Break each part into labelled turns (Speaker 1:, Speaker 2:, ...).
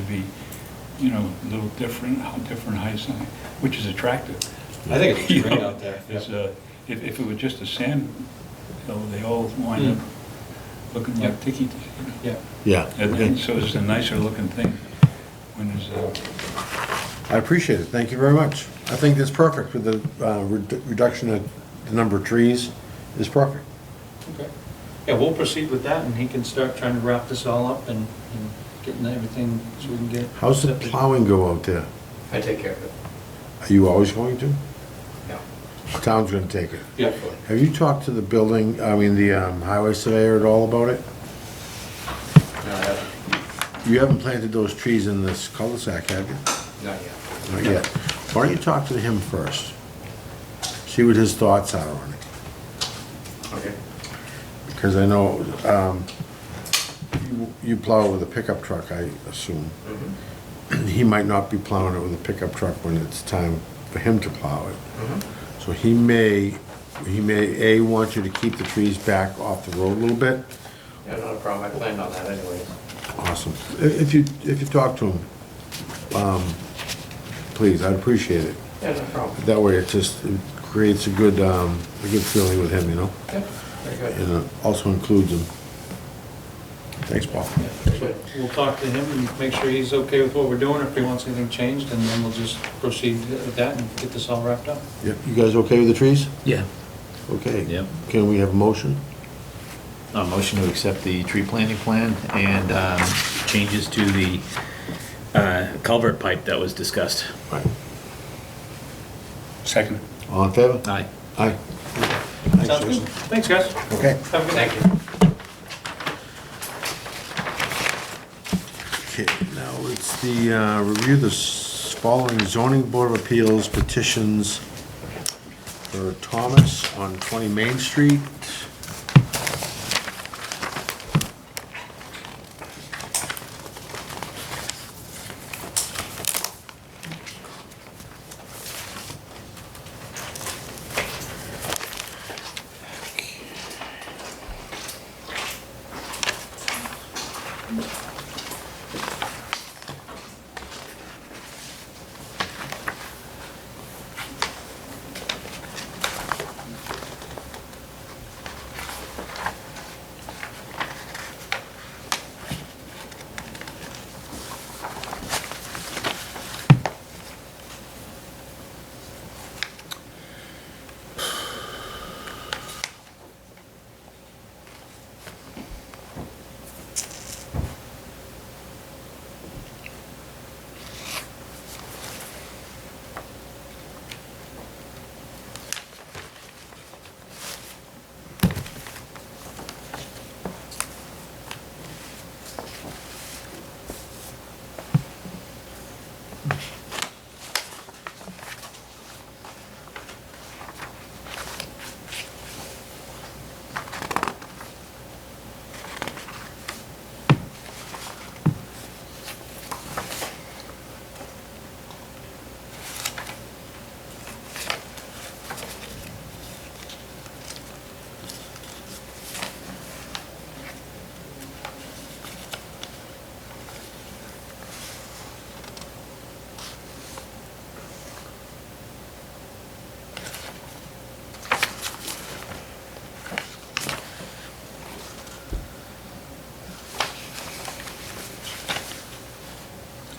Speaker 1: be, you know, a little different, how different heights, and- which is attractive.
Speaker 2: I think it
Speaker 1: You
Speaker 2: looks great
Speaker 1: know,
Speaker 2: out there.
Speaker 1: It's,
Speaker 2: Yep.
Speaker 1: uh, if, if it were just a sand hill, they all wind
Speaker 2: Mm.
Speaker 1: up looking
Speaker 2: Yep.
Speaker 1: like tiki,
Speaker 2: Yeah.
Speaker 3: Yeah.
Speaker 1: and and so it's a nicer looking thing when uh, there's a
Speaker 3: I appreciate it, thank you very much. I think that's perfect with the uh, redu- reduction of the number of trees is perfect.
Speaker 2: Okay. Yeah, we'll proceed with that, and he can start trying to wrap this all up and and getting everything so we can get.
Speaker 3: How's the plowing go out there?
Speaker 4: I take care of it.
Speaker 3: Are you always going to?
Speaker 4: No.
Speaker 3: The Town's gonna take it.
Speaker 2: Yeah.
Speaker 3: Have you talked to the building, I mean, the um, highway surveyor at all about it?
Speaker 4: No, I haven't.
Speaker 3: You haven't planted those trees in this cul-de-sac, have you?
Speaker 4: Not yet.
Speaker 3: Not yet. Why don't you talk to him first? See what his thoughts are on it.
Speaker 4: Okay.
Speaker 3: Because I know, um, you- you plow with a pickup truck, I assume.
Speaker 4: Mhm.
Speaker 3: He might not be plowing it with a pickup truck when it's time for him to plow it.
Speaker 4: Mhm.
Speaker 3: So he may, he may, A, want you to keep the trees back off the road a little bit.
Speaker 4: Yeah, not a problem. I planned on that anyways.
Speaker 3: Awesome. I- If you, if you talk to him, um, please, I'd appreciate it.
Speaker 4: Yeah, no problem.
Speaker 3: That way it just it creates a good, um, a good feeling with him, you know?
Speaker 4: Yeah, very good.
Speaker 3: And it also includes him. Thanks, Paul.
Speaker 2: Yeah, so We'll talk to him and make sure he's okay with what we're doing, if he wants anything changed, and then we'll just proceed with that and get this all wrapped up.
Speaker 3: Yep, you guys okay with the trees?
Speaker 5: Yeah,
Speaker 3: Okay.
Speaker 5: Yep.
Speaker 3: Can we have a motion?
Speaker 5: a motion to accept the tree planting plan and um, changes to the uh, culvert pipe that was discussed.
Speaker 3: Right.
Speaker 1: second.
Speaker 3: All in favor?
Speaker 5: Aye.
Speaker 3: Aye.
Speaker 2: Sounds good? Thanks, guys.
Speaker 3: Okay.
Speaker 2: Have a good
Speaker 4: Thank
Speaker 2: night.
Speaker 4: you.
Speaker 3: Okay, now it's the, uh, review the s- following zoning board of appeals petitions for Thomas on 20 Main Street.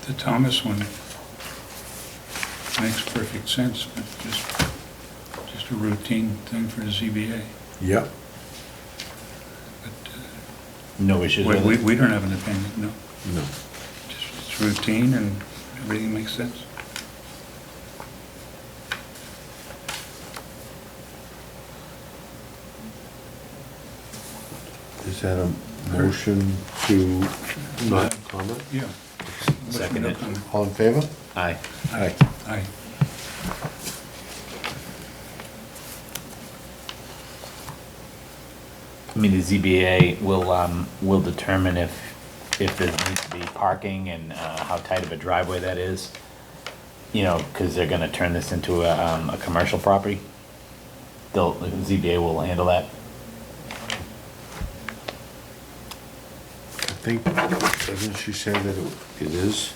Speaker 1: The Thomas one makes perfect sense, but just, just a routine thing for the ZBA.
Speaker 3: Yep.
Speaker 1: But
Speaker 5: No
Speaker 1: uh,
Speaker 5: issues
Speaker 1: we,
Speaker 5: with
Speaker 1: we
Speaker 5: it?
Speaker 1: we don't have an opinion, no.
Speaker 3: No.
Speaker 1: Just It's routine and everything makes sense.
Speaker 3: Is that a motion to not comment?
Speaker 1: Yeah.
Speaker 5: Second it.
Speaker 3: All in favor?
Speaker 5: Aye.
Speaker 1: Aye. Aye.
Speaker 5: I mean, the ZBA will, um, will determine if, if there needs to be parking and uh, how tight of a driveway that is. You know, because they're gonna turn this into a, um, a commercial property. They'll, the ZBA will handle that.
Speaker 3: I think, doesn't she say that it it is?